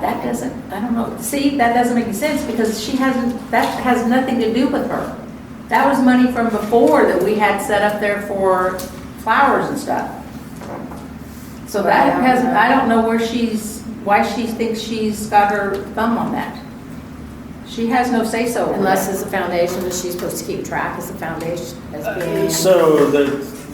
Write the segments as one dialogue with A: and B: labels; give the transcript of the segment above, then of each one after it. A: doesn't, I don't know, see, that doesn't make any sense, because she hasn't, that has nothing to do with her. That was money from before that we had set up there for flowers and stuff. So that has, I don't know where she's, why she thinks she's got her thumb on that. She has no say-so. over
B: Unless
A: that.
B: it's a foundation that she's supposed to keep track as a foundation, as being.
C: Uh, So the,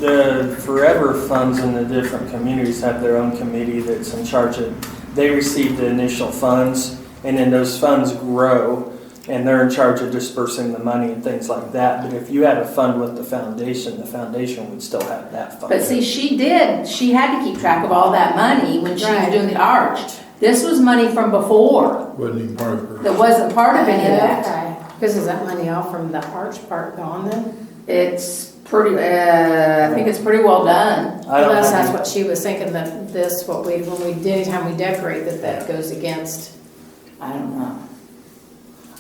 C: the forever funds in the different communities have their own committee that's in charge of, they receive the initial funds and then those funds grow and they're in charge of dispersing the money and things like that. But if you had a fund with the foundation, the foundation would still have that fund.
A: But see, she did, she had to keep track of all that money when she was
B: Right.
A: doing the arch. This was money from before
D: Wasn't even part of her.
A: that wasn't part of any of that.
B: Because is that money all from the arch part gone then?
A: It's pretty, uh, I think it's pretty well done.
C: I don't
B: Unless
C: have
B: that's
C: any-
B: what she was thinking, that this, what we, when we, anytime we decorate, that that goes against.
A: I don't know.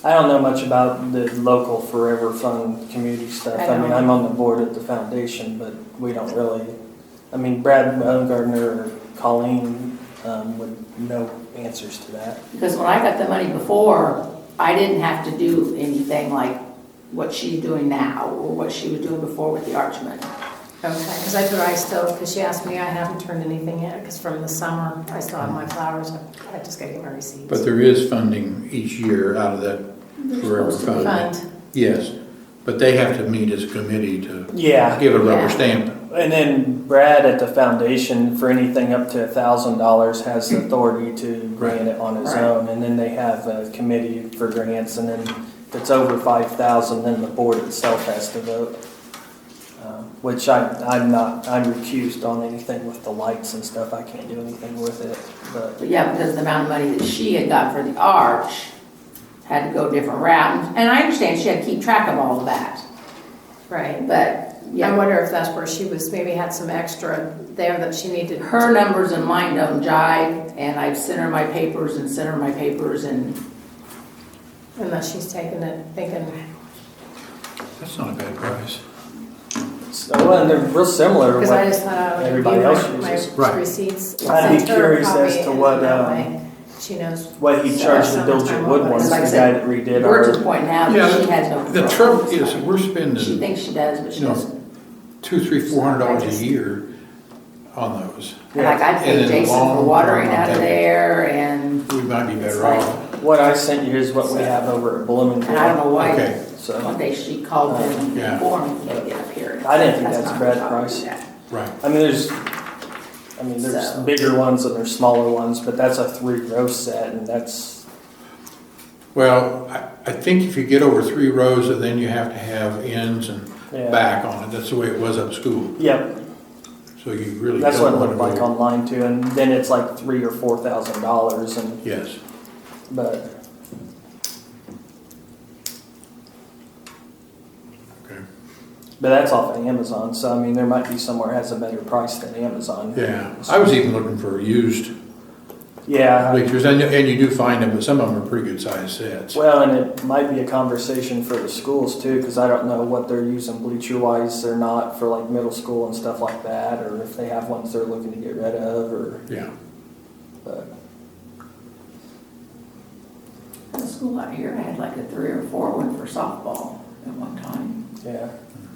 C: I don't know much about the local forever fund community stuff.
B: I
C: I mean,
B: don't.
C: I'm on the board at the foundation, but we don't really, I mean, Brad Baumgartner or Colleen um, would know answers to that.
A: Because when I got the money before, I didn't have to do anything like what she's doing now or what she was doing before with the arch money.
B: Okay, because that's what I still, because she asked me, I haven't turned anything in, because from the summer, I still have my flowers, I just gotta get my receipts.
D: But there is funding each year out of that forever
B: Supposed to be
D: fund.
B: fund.
D: Yes, but they have to meet as a committee to
C: Yeah,
D: give a
A: Yeah.
D: rubber stamp.
C: and then Brad at the foundation for anything up to a thousand dollars has the authority to grant it on his
A: Right.
C: own. And then they have a committee for grants, and then if it's over five thousand, then the board itself has to vote. Uh, Which I, I'm not, I'm recused on anything with the lights and stuff. I can't do anything with it, but
A: But yeah, because the amount of money that she had got for the arch had to go a different route. And I understand she had to keep track of all of that,
B: Right,
A: but
B: I
A: yeah,
B: wonder if that's where she was, maybe had some extra there that she needed.
A: her numbers and mine don't jive. And I've sent her my papers and sent her my papers and
B: Unless she's taking it, thinking,
D: That's not a bad price.
C: so, oh, and they're real similar.
B: because
C: what-
B: I just thought I would
C: Everybody else
B: review my-
C: uses.
B: my
D: Right.
B: receipts.
C: I'd be
B: send her a
C: curious as
B: copy,
C: to
B: and
C: what,
B: that
C: um,
B: way She knows.
C: What he
B: So
C: charged the
B: that's how much
C: Diligent
B: I
C: Wood
B: want.
C: one is the
A: Like I
C: guy
A: said,
C: that redid
A: we're to
C: our,
A: the point now
D: Yeah,
A: that she has no control.
D: The trouble is, we're
A: She
D: spending
A: thinks she does, but she
D: No.
A: doesn't.
D: two, three, four hundred dollars a year on those.
A: And Like I
D: And
A: paid
D: in the
A: Jason for
D: long
A: watering
D: term, I
A: out of
D: think-
A: there and,
D: We might be
A: It's
D: better
A: like-
D: off.
C: what I sent you is what we have over at Bloomington.
A: and I don't know why,
D: Okay. Uh,
C: So.
A: one day she called him and
D: Yeah.
A: informed me, "Hey, get up here.
C: I didn't think that's
A: not
C: Brad
A: how we
C: Price.
A: do that.
D: Right.
C: I mean, there's, I mean, there's
A: So-
C: bigger ones and there's smaller ones, but that's a three row set, and that's
D: Well, I, I think if you get over three rows, then you have to have ends and
C: Yeah.
D: back on it. That's the way it was up school.
C: yeah,
D: So you really
C: that's
D: don't
C: what it
D: want
C: looked like
D: to go.
C: online too. And then it's like three or four thousand dollars, and
D: Yes.
C: but
D: Okay.
C: but that's off of Amazon. So I mean, there might be somewhere that has a better price than Amazon.
D: Yeah. I was even looking for used
C: Yeah.
D: bleachers, and, you- and you do find them, but some of them are pretty good sized sets.
C: Well, and it might be a conversation for the schools too, because I don't know what they're using bleacher wise or not for like middle school and stuff like that, or if they have ones they're looking to get rid of, or
D: Yeah.
C: but.
A: The school out here had like a three or four one for softball at one time.
C: Yeah,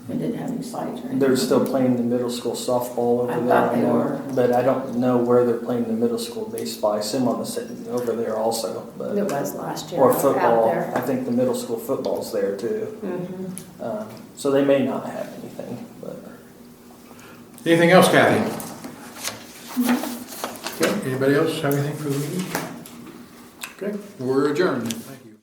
A: It didn't have any slides or anything.
C: they're still playing the middle school softball over
A: I
C: there.
A: thought they
C: know,
A: were.
C: But I don't know where they're playing the middle school baseball. I assume on the sitting over there also,
B: It
C: but
B: was last year
C: or
B: out
C: football. I
B: there.
C: think the middle school football's there too.
B: Mhm.
A: Mm-hmm.
C: Um, so they may not have anything, but
D: Anything else, Kathy? Okay. Anybody else have anything for the meeting? Okay. We're adjourned. Thank you.